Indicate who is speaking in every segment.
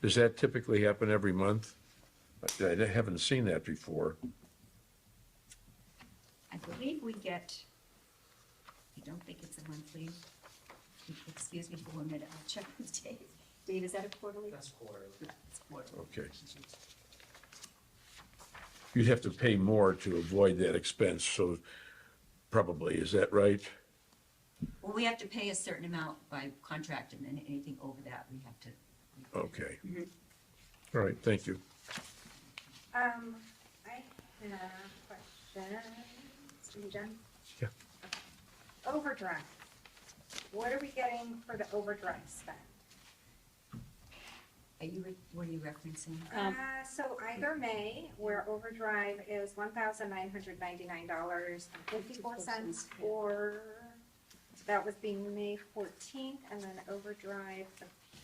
Speaker 1: Does that typically happen every month? I I haven't seen that before.
Speaker 2: I believe we get, I don't think it's a monthly. Excuse me for one minute, I'll check with Dave. Dave, is that a quarterly?
Speaker 3: That's quarterly.
Speaker 2: It's quarterly.
Speaker 1: Okay. You'd have to pay more to avoid that expense, so probably, is that right?
Speaker 2: Well, we have to pay a certain amount by contract and then anything over that, we have to.
Speaker 1: Okay. All right, thank you.
Speaker 4: Um, I have a question. Are you done?
Speaker 1: Yeah.
Speaker 4: Overdrive. What are we getting for the overdrive spend?
Speaker 2: Are you, re- what are you referencing?
Speaker 5: Um,
Speaker 4: Uh, so either May, where overdrive is one thousand nine hundred ninety-nine dollars and fifty-four cents, or that was being May fourteenth, and then overdrive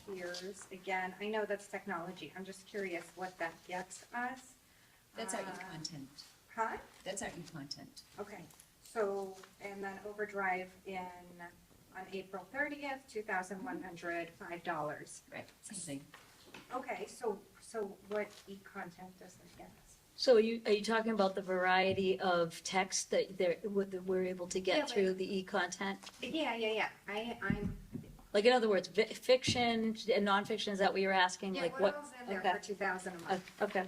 Speaker 4: appears again. I know that's technology. I'm just curious what that gets us.
Speaker 2: That's our
Speaker 4: Uh,
Speaker 2: e-content.
Speaker 4: Huh?
Speaker 2: That's our e-content.
Speaker 4: Okay, so, and then overdrive in, on April thirtieth, two thousand one hundred five dollars.
Speaker 2: Right, same thing.
Speaker 4: Okay, so, so what e-content does this get us?
Speaker 5: So are you, are you talking about the variety of text that they're, what that we're able to
Speaker 4: Yeah,
Speaker 5: get
Speaker 4: but-
Speaker 5: through the e-content?
Speaker 4: Yeah, yeah, yeah, I, I'm,
Speaker 5: Like, in other words, vi- fiction and nonfiction, is that what you're asking,
Speaker 4: yeah,
Speaker 5: like
Speaker 4: what
Speaker 5: what?
Speaker 4: else in there
Speaker 5: okay.
Speaker 4: for two thousand a month?
Speaker 5: Uh, Okay,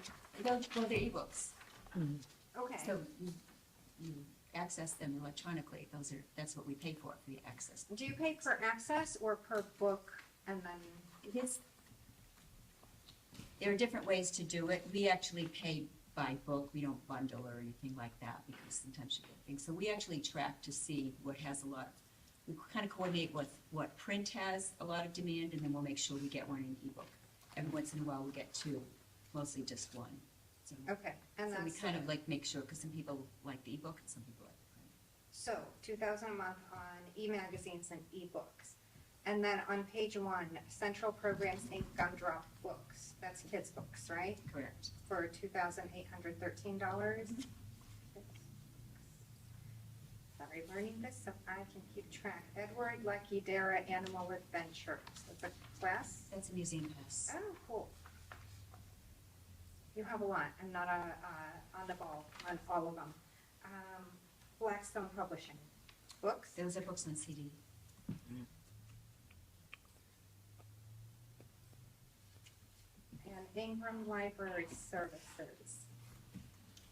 Speaker 2: Well, well, they're ebooks,
Speaker 4: Okay,
Speaker 2: so you, you access them electronically. Those are, that's what we pay for, we access.
Speaker 4: do you pay per access or per book and then,
Speaker 2: It is. There are different ways to do it. We actually pay by book. We don't bundle or anything like that because sometimes you get things. So we actually track to see what has a lot of, we kind of coordinate what, what print has a lot of demand and then we'll make sure we get one in ebook. Every once in a while, we'll get two, mostly just one. So
Speaker 4: okay, and
Speaker 2: so we
Speaker 4: that's,
Speaker 2: kind of like make sure, because some people like the ebook and some people like the print.
Speaker 4: so, two thousand a month on e-magazines and e-books. And then on page one, Central Programs Inc. Gumdrop Books, that's kids' books, right?
Speaker 2: Correct.
Speaker 4: for two thousand eight hundred thirteen dollars. Sorry, learning this so I can keep track. Edward Lucky Dara Animal Adventure. It's a class.
Speaker 2: That's a museum pass.
Speaker 4: Oh, cool. You have a lot. I'm not on, uh, on the ball on all of them. Um, Blackstone Publishing. Books.
Speaker 2: Those are books on CD.
Speaker 4: And Ingram Library Services.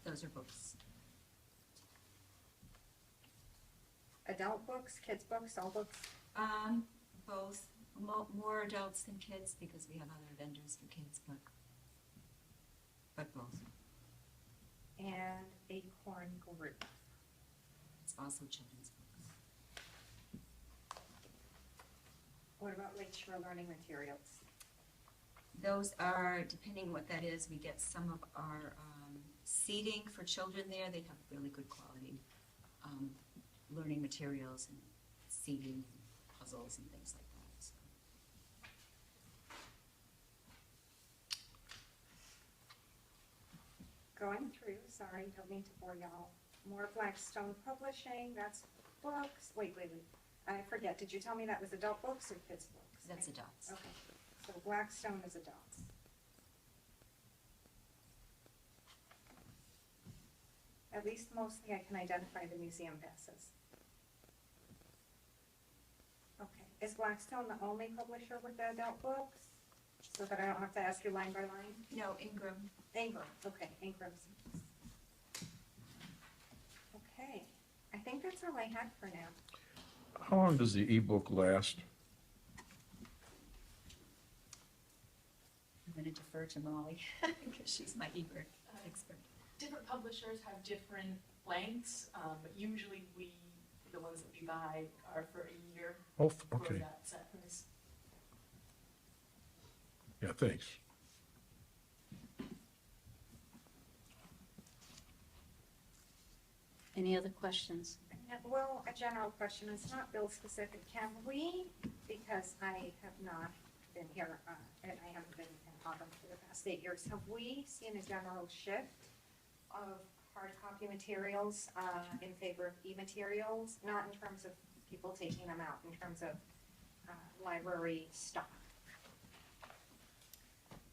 Speaker 2: Those are books.
Speaker 4: Adult books, kids books, all books.
Speaker 2: Um, both, mo- more adults than kids because we have other vendors for kids, but, but both.
Speaker 4: And Acorn Group.
Speaker 2: It's also children's books.
Speaker 4: What about Lakeshore Learning Materials?
Speaker 2: Those are, depending what that is, we get some of our, um, seating for children there. They have really good quality, um, learning materials and seating and puzzles and things like that, so.
Speaker 4: going through, sorry, don't mean to bore y'all. More Blackstone Publishing, that's books, wait, wait, wait. I forget, did you tell me that was adult books or kids' books?
Speaker 2: That's adults.
Speaker 4: Okay, so Blackstone is adults. At least mostly I can identify the museum passes. Okay, is Blackstone the only publisher with the adult books? So that I don't have to ask you line by line?
Speaker 2: No, Ingram,
Speaker 4: Ingram, okay, Ingram. Okay, I think that's all I had for now.
Speaker 1: How long does the ebook last?
Speaker 2: I'm gonna defer to Molly because she's my Ebert expert.
Speaker 6: different publishers have different lengths, um, but usually we, the ones that we buy are for a year
Speaker 1: Oh,
Speaker 6: for
Speaker 1: okay,
Speaker 6: that sentence.
Speaker 1: yeah, thanks.
Speaker 5: any other questions?
Speaker 4: Well, a general question, it's not bill specific, can we, because I have not been here, uh, and I haven't been in Auburn for the past eight years, have we seen a general shift of hard copy materials, uh, in favor of e-materials, not in terms of people taking them out, in terms of, uh, library stock?